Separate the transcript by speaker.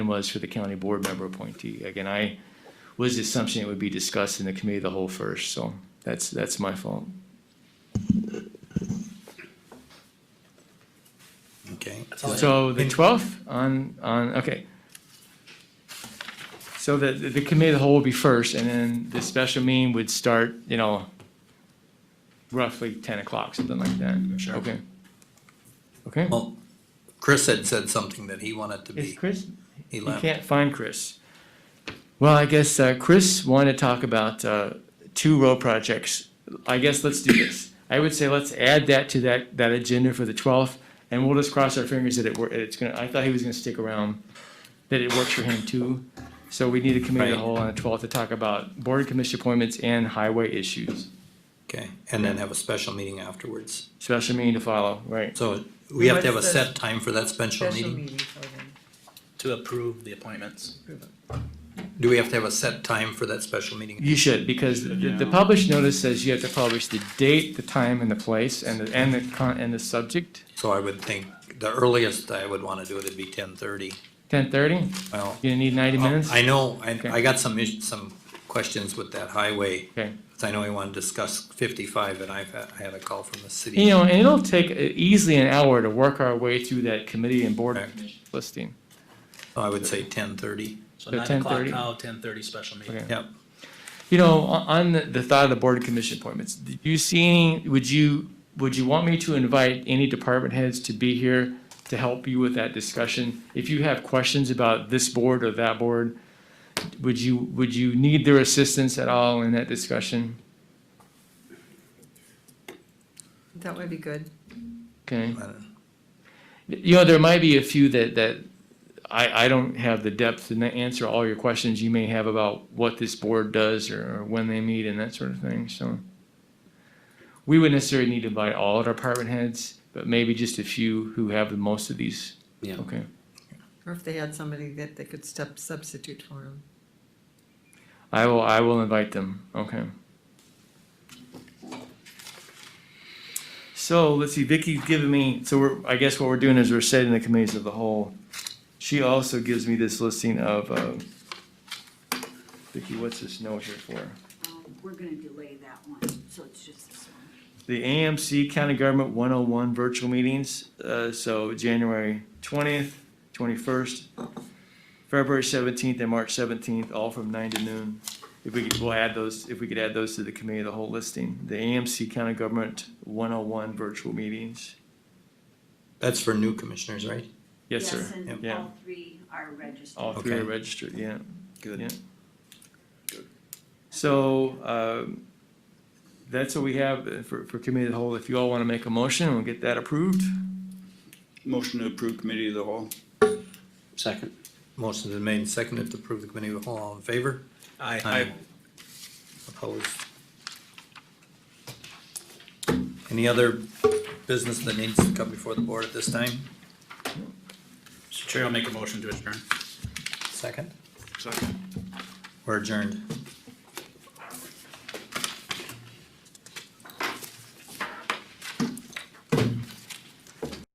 Speaker 1: was for the county board member appointee. Again, I was the assumption it would be discussed in the committee of the whole first, so that's, that's my fault.
Speaker 2: Okay.
Speaker 1: So the twelfth on, on, okay. So the, the committee of the whole will be first, and then the special meeting would start, you know, roughly ten o'clock, something like that.
Speaker 2: Sure.
Speaker 1: Okay. Okay,
Speaker 2: Well, Chris had said something that he wanted to
Speaker 1: is
Speaker 2: be.
Speaker 1: Chris,
Speaker 2: He
Speaker 1: you
Speaker 2: left.
Speaker 1: can't find Chris. Well, I guess, uh, Chris wanted to talk about, uh, two road projects. I guess let's do this. I would say let's add that to that, that agenda for the twelfth, and we'll just cross our fingers that it, wor- it's gonna, I thought he was gonna stick around, that it works for him too. So we need a committee of the
Speaker 2: Right.
Speaker 1: whole on the twelfth to talk about board and commission appointments and highway issues.
Speaker 2: Okay, and then have a special meeting afterwards.
Speaker 1: Special meeting to follow, right?
Speaker 2: So we have to have a
Speaker 3: What's
Speaker 2: set time for that special
Speaker 3: Special
Speaker 2: meeting.
Speaker 3: meeting for them.
Speaker 4: To approve the appointments.
Speaker 2: Do we have to have a set time for that special meeting?
Speaker 1: You should, because the, the published notice says you have to publish the date, the time, and the place, and the, and the con, and the subject.
Speaker 2: So I would think the earliest I would wanna do it would be ten thirty.
Speaker 1: Ten thirty?
Speaker 2: Well,
Speaker 1: You need ninety minutes?
Speaker 2: Oh, I know, I,
Speaker 1: Okay.
Speaker 2: I got some issues, some questions with that highway.
Speaker 1: Okay.
Speaker 2: 'cause I know we wanna discuss fifty-five and I've, had- I had a call from the
Speaker 1: You
Speaker 2: city.
Speaker 1: know, and it'll take uh, easily an hour to work our way through that committee and board
Speaker 2: Correct.
Speaker 1: listing.
Speaker 2: So I would say ten thirty.
Speaker 4: So
Speaker 1: So
Speaker 4: nine o'clock
Speaker 1: 10:30.
Speaker 4: now, ten thirty special meeting.
Speaker 1: Okay.
Speaker 2: Yep.
Speaker 1: You know, on, on the, the thought of the board and commission appointments, do you see any, would you, would you want me to invite any department heads to be here to help you with that discussion? If you have questions about this board or that board, would you, would you need their assistance at all in that discussion?
Speaker 3: That would be good.
Speaker 1: Okay?
Speaker 2: I don't-
Speaker 1: You know, there might be a few that, that I, I don't have the depth to na- answer all your questions you may have about what this board does or, or when they meet and that sort of thing, so. We wouldn't necessarily need to invite all of our department heads, but maybe just a few who have the most of these.
Speaker 4: Yeah.
Speaker 1: Okay.
Speaker 3: Or if they had somebody that they could step, substitute for them.
Speaker 1: I will, I will invite them, okay. So, let's see, Vicky's given me, so we're, I guess what we're doing is we're setting the committees of the whole. She also gives me this listing of, uh, Vicky, what's this note here for?
Speaker 5: Um, We're gonna delay that one, so it's just this one.
Speaker 1: The AMC County Government one oh one virtual meetings, uh, so January twentieth, twenty-first, February seventeenth and March seventeenth, all from nine to noon. If we could, we'll add those, if we could add those to the committee, of the whole listing, the AMC County Government one oh one virtual meetings.
Speaker 2: That's for new commissioners, right?
Speaker 1: Yes, sir.
Speaker 5: and
Speaker 1: Yeah.
Speaker 5: all three are registered.
Speaker 1: All three are
Speaker 2: Okay.
Speaker 1: registered, yeah.
Speaker 2: Good.
Speaker 1: Yeah. So, um, that's what we have uh, for, for committee of the whole. If you all wanna make a motion, we'll get that approved.
Speaker 6: Motion to approve committee of the whole.
Speaker 4: Second.
Speaker 2: Motion is made and seconded to approve the committee of the whole. All in favor?
Speaker 4: Aye.
Speaker 2: Opposed? Any other business that needs to come before the board at this time?
Speaker 4: Mr. Chair, I'll make a motion to adjourn.
Speaker 2: Second?
Speaker 6: Second.
Speaker 2: We're adjourned.